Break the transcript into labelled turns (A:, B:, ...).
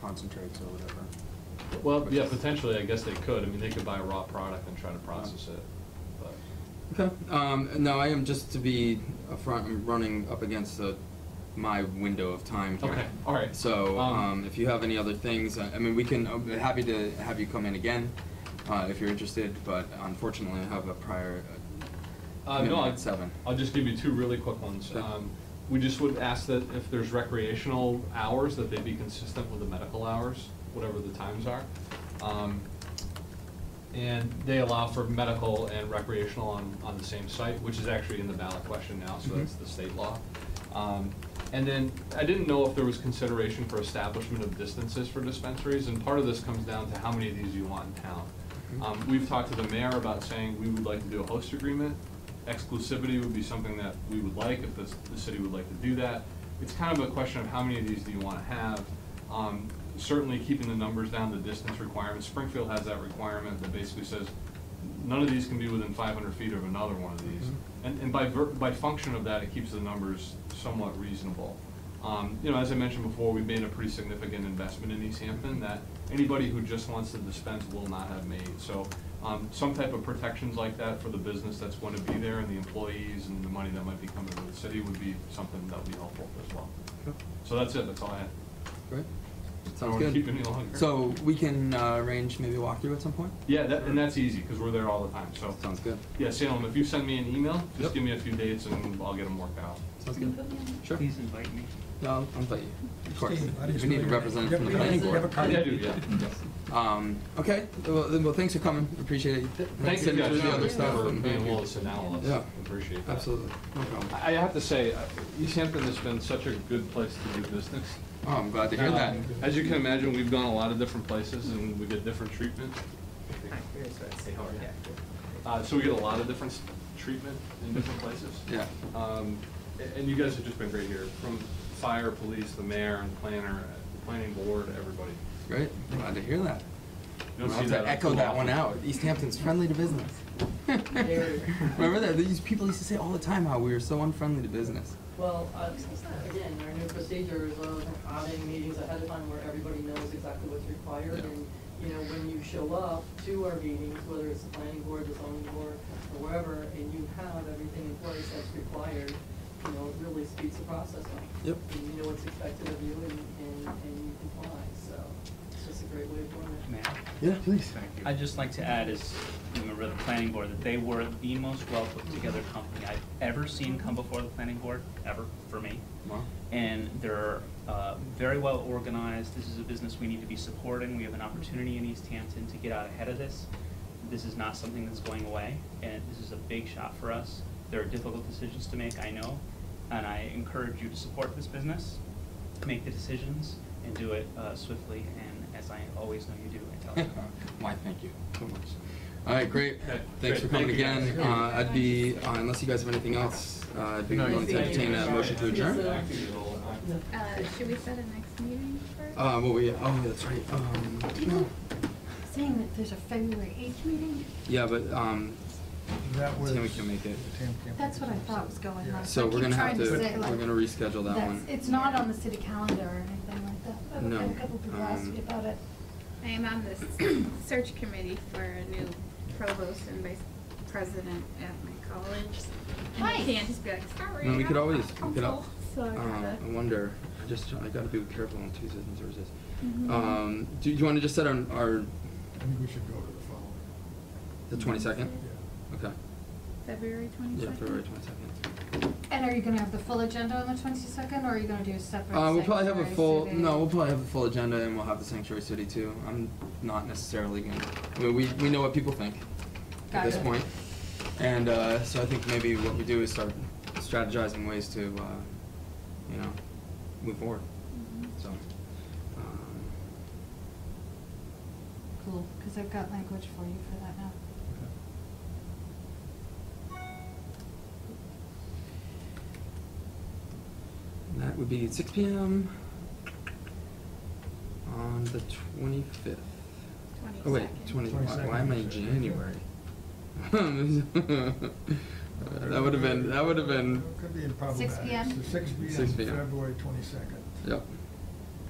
A: concentrates or whatever.
B: Well,
A: Which
B: yeah,
A: is-
B: potentially, I guess they could. I mean, they could buy a raw product and try to process it, but.
C: Okay. Um, no, I am just to be upfront. I'm running up against the, my window of time here.
B: Okay, all right.
C: So,
B: Um,
C: um, if you have any other things, uh, I, I mean, we can. I'm happy to have you come in again, uh, if you're interested. But unfortunately, I have a prior. Uh,
B: Uh, no,
C: commitment
B: I-
C: at seven.
B: I'll just give you two really quick ones.
C: Sure.
B: Um, We just would ask that if there's recreational hours, that they be consistent with the medical hours, whatever the times are. Um, And they allow for medical and recreational on, on the same site, which is actually in the ballot question now, so that's
C: Mhm.
B: the state law. Um, And then, I didn't know if there was consideration for establishment of distances for dispensaries, and part of this comes down to how many of these you want in town.
C: Mhm.
B: Um, We've talked to the mayor about saying we would like to do a host agreement. Exclusivity would be something that we would like, if the, the city would like to do that. It's kind of a question of how many of these do you want to have? Um, Certainly keeping the numbers down, the distance requirements. Springfield has that requirement that basically says none of these can be within five hundred feet of another one of these. And, and by ver, by function of that, it keeps the numbers somewhat reasonable. Um, you know, as I mentioned before, we've made a pretty significant investment in East Hampton that anybody who just wants to dispense will not have made. So, um, some type of protections like that for the business that's going to be there and the employees and the money that might be coming to the city would be something that would be helpful as well.
C: Okay.
B: So that's it, that's all I had.
C: Great.
B: I
C: Sounds
B: won't
C: good.
B: keep you any longer.
C: So we can uh, arrange maybe a walkthrough at some point.
B: Yeah, that, and that's easy, because we're there all the time, so.
C: Sounds good.
B: Yeah, Salem, if you send me an email,
C: Yep.
B: just give me a few dates and I'll get them worked out.
C: Sounds
D: Can you
C: good.
D: put me on?
C: Sure.
E: Please invite me.
C: No, I'll invite you. Of course.
F: Steve, I
C: We
F: didn't
C: need
F: know
C: a
F: you-
C: representative
F: you
C: from the
F: have-
C: planning
F: you have
C: board.
F: a
B: Yeah,
F: card?
B: I do, yeah.
C: Um, okay. Well, then- well, thanks for coming. Appreciate it.
B: Thank you
C: Sitting
B: guys
C: through the other
B: for
C: stuff.
B: for
C: and-
B: being
C: thank you.
B: willing to sit down with
C: Yeah.
B: us. Appreciate that.
C: Absolutely. No problem.
B: I I have to say, uh, East Hampton has been such a good place to do business.
C: Oh, I'm glad to hear
B: Um,
C: that.
B: As you can imagine, we've gone a lot of different places and we get different treatment. Uh, so we get a lot of different s- treatment in different places.
C: Yeah.
B: Um, a- and you guys have just been great here, from fire, police, the mayor and planner, uh, the planning board, everybody.
C: Great. Glad to hear that.
B: You
C: I'll
B: don't see
C: have
B: that
C: to echo
B: too
C: that one
B: often.
C: out. East Hampton's friendly to business. Remember that? These people used to say all the time how we were so unfriendly to business.
D: Well, uh, again, our new procedure is of having meetings ahead of time where everybody knows exactly what's required.
C: Yeah.
D: And, you know, when you show up to our meetings, whether it's the planning board, the zoning board, or wherever, and you have everything in place that's required, you know, it really speeds the process up.
C: Yep.
D: And you know what's expected of you and, and, and you comply, so it's just a great way of doing it.
E: Matt,
C: Yeah, please.
E: I'd just like to add as a member of the planning board that they were the most well put together company I've ever seen come before the planning board, ever, for me.
C: Wow.
E: And they're uh, very well organized. This is a business we need to be supporting. We have an opportunity in East Hampton to get out ahead of this. This is not something that's going away, and this is a big shot for us. There are difficult decisions to make, I know, and I encourage you to support this business, make the decisions, and do it uh, swiftly and as I always know you do. I tell you.
C: Why, thank you so much. All right, great.
B: Okay,
C: Thanks
B: great.
C: for coming
B: Thank you, guys.
C: again. Uh, I'd be, uh, unless you guys have anything else, uh, I'd be
B: No,
C: willing to
D: thank you.
C: entertain a motion to adjourn.
B: Thank you all.
G: Uh, should we set a next meeting for?
C: Uh, well, we, oh, that's right. Um, no.
G: Saying that there's a February eighth meeting,
C: Yeah, but, um,
F: That was.
C: Tammy can make it.
F: Tam can't
G: that's
F: make
G: what I
F: it.
G: thought was going
F: Yeah.
G: on.
C: so
G: I
C: we're
G: keep
C: gonna have
G: trying
C: to,
G: say,
C: we're
G: like,
C: gonna reschedule that
G: that's-
C: one.
G: It's not on the city calendar or anything like that. I
C: No,
G: had a couple people asked
C: um,
G: me about it.
H: I am on this search committee for a new provost and vice president at my college. And I
G: Nice.
H: can't just be like, sorry.
C: I mean, we
H: I'm
C: could always,
H: not
C: we could, al-
H: helpful," So I
C: um,
H: gotta.
C: I wonder, I just, I gotta be careful on Tuesdays and Thursdays.
G: Mm-hmm.
H: Mhm.
C: Um, do you wanna just set on our,
F: I think we should go to the following.
C: the twenty-second?
F: Yeah.
C: Okay,
H: February
C: yeah,
H: twenty-second.
C: February twenty-second.
G: And are you gonna have the full agenda on the twenty-second, or are you gonna do a separate?
C: Uh, we'll probably have a
G: sanctuary
C: full,
G: city?
C: no, we'll probably have a full agenda and we'll have the sanctuary city too. I'm not necessarily gonna, I mean, we, we know what people think at this
G: Gotcha.
C: point. And, uh, so I think maybe what we do is start strategizing ways to, uh, you know, move forward,
H: Mm-hmm.
C: so. um,
G: Cool, cause I've got language for you for that now.
C: And That would be six PM on the twenty-fifth. Oh wait, twenty, why, why am I in
F: 22nd.
C: January? Uh, That would have been, that would have been,
F: Could be in
G: 6
F: problematic.
G: p.m.
F: So Six P M,
C: 6 p.m.
F: February twenty-second.
C: yep,